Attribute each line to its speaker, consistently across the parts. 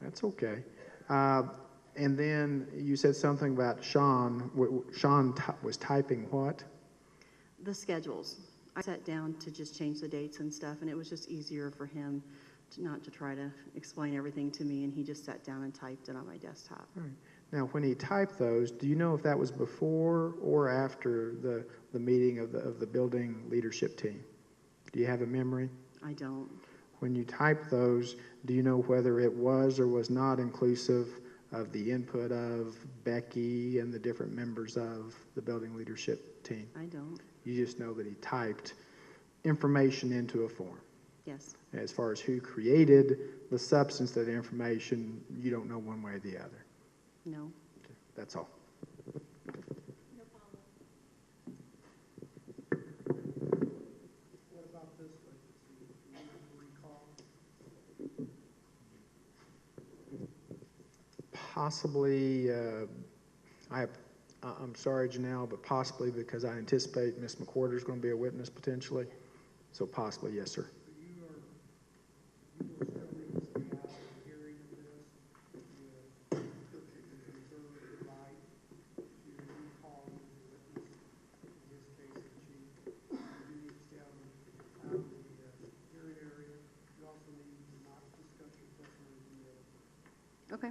Speaker 1: That's okay. Uh, and then you said something about Sean. W- w- Sean ty- was typing what?
Speaker 2: The schedules. I sat down to just change the dates and stuff, and it was just easier for him to not to try to explain everything to me, and he just sat down and typed it on my desktop.
Speaker 1: Now, when he typed those, do you know if that was before or after the, the meeting of the, of the building leadership team? Do you have a memory?
Speaker 2: I don't.
Speaker 1: When you typed those, do you know whether it was or was not inclusive of the input of Becky and the different members of the building leadership team?
Speaker 2: I don't.
Speaker 1: You just know that he typed information into a form.
Speaker 2: Yes.
Speaker 1: As far as who created the substance of the information, you don't know one way or the other.
Speaker 2: No.
Speaker 1: That's all.
Speaker 3: What about this vacancy? Do you recall?
Speaker 1: Possibly, uh, I, I- I'm sorry, Janelle, but possibly because I anticipate Ms. McWhorter's going to be a witness potentially. So possibly, yes, sir.
Speaker 3: So you are, you will still need to stay out of the hearing of this with restrictions and reserve the right to recall the witness, in this case, the chief. You need to stay out of out of the uh, hearing area. You also need to not discuss your personal email.
Speaker 2: Okay.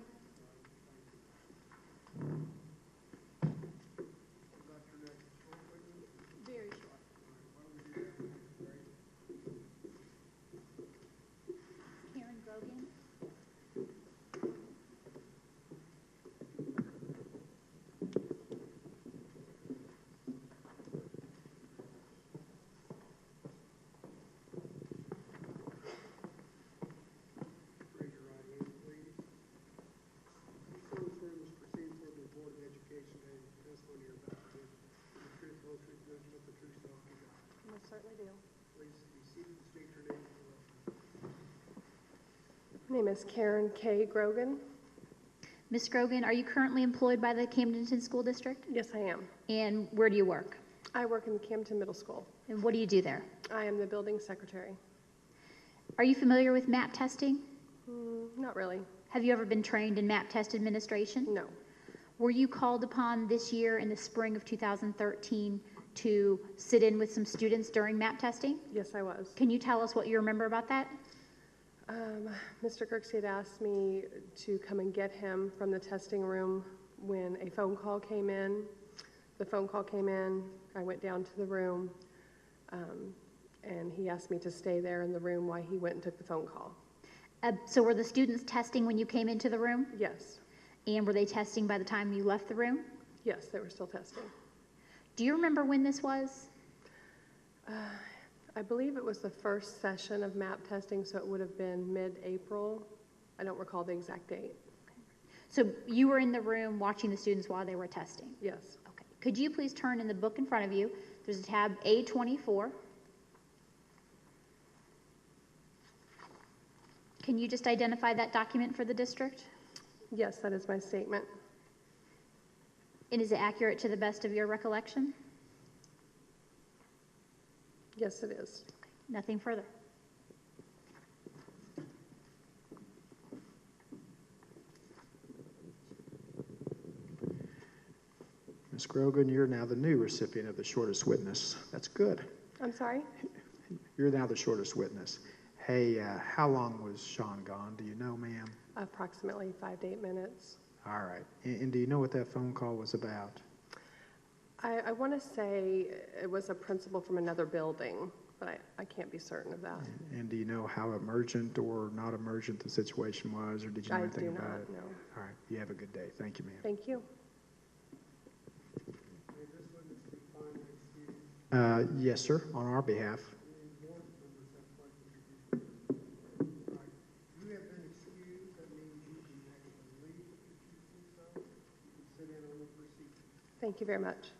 Speaker 3: About your next short witness,
Speaker 4: Very short.
Speaker 3: why don't we do that one, right?
Speaker 4: Karen Grogan,
Speaker 3: Raise your right hand, please. You solemnly swear this proceeding before the Board of Education that the testimony you're about to give is the truth, the whole truth, nothing but the truth, so help you God.
Speaker 4: most certainly do.
Speaker 3: Please be seated and state your name for the record.
Speaker 5: My name is Karen K. Grogan.
Speaker 6: Ms. Grogan, are you currently employed by the Camdenton School District?
Speaker 5: Yes, I am.
Speaker 6: And where do you work?
Speaker 5: I work in the Camden Middle School.
Speaker 6: And what do you do there?
Speaker 5: I am the building secretary.
Speaker 6: Are you familiar with MAP testing?
Speaker 5: Mm, Not really,
Speaker 6: Have you ever been trained in MAP test administration?
Speaker 5: no.
Speaker 6: Were you called upon this year in the spring of 2013 to sit in with some students during MAP testing?
Speaker 5: Yes, I was.
Speaker 6: Can you tell us what you remember about that?
Speaker 5: Um, Mr. Kirksey had asked me to come and get him from the testing room when a phone call came in. The phone call came in, I went down to the room, um, and he asked me to stay there in the room while he went and took the phone call.
Speaker 6: Uh, so were the students testing when you came into the room?
Speaker 5: Yes,
Speaker 6: And were they testing by the time you left the room?
Speaker 5: yes, they were still testing.
Speaker 6: Do you remember when this was?
Speaker 5: I believe it was the first session of MAP testing, so it would have been mid-April. I don't recall the exact date.
Speaker 6: So you were in the room watching the students while they were testing?
Speaker 5: Yes.
Speaker 6: Okay, could you please turn in the book in front of you? There's a tab A24. Can you just identify that document for the district?
Speaker 5: Yes, that is my statement.
Speaker 6: And is it accurate to the best of your recollection?
Speaker 5: Yes, it is.
Speaker 6: Nothing further.
Speaker 1: Ms. Grogan, you're now the new recipient of the shortest witness. That's good.
Speaker 5: I'm sorry?
Speaker 1: You're now the shortest witness. Hey, uh, how long was Sean gone? Do you know, ma'am?
Speaker 5: Approximately five to eight minutes.
Speaker 1: All right. And, and do you know what that phone call was about?
Speaker 5: I, I want to say it was a principal from another building, but I, I can't be certain of that.
Speaker 1: And do you know how emergent or not emergent the situation was, or did you know
Speaker 5: I
Speaker 1: anything
Speaker 5: do
Speaker 1: about
Speaker 5: not
Speaker 1: it?
Speaker 5: know.
Speaker 1: All right. You have a good day. Thank you, ma'am.
Speaker 5: Thank you.
Speaker 3: May this witness be finally excused,
Speaker 1: Uh, yes, sir. On our behalf.
Speaker 3: any board members have questions? Right. You have been excused, that means you can actually leave if you choose to, so, you can sit in on the proceeding.
Speaker 5: Thank you very much.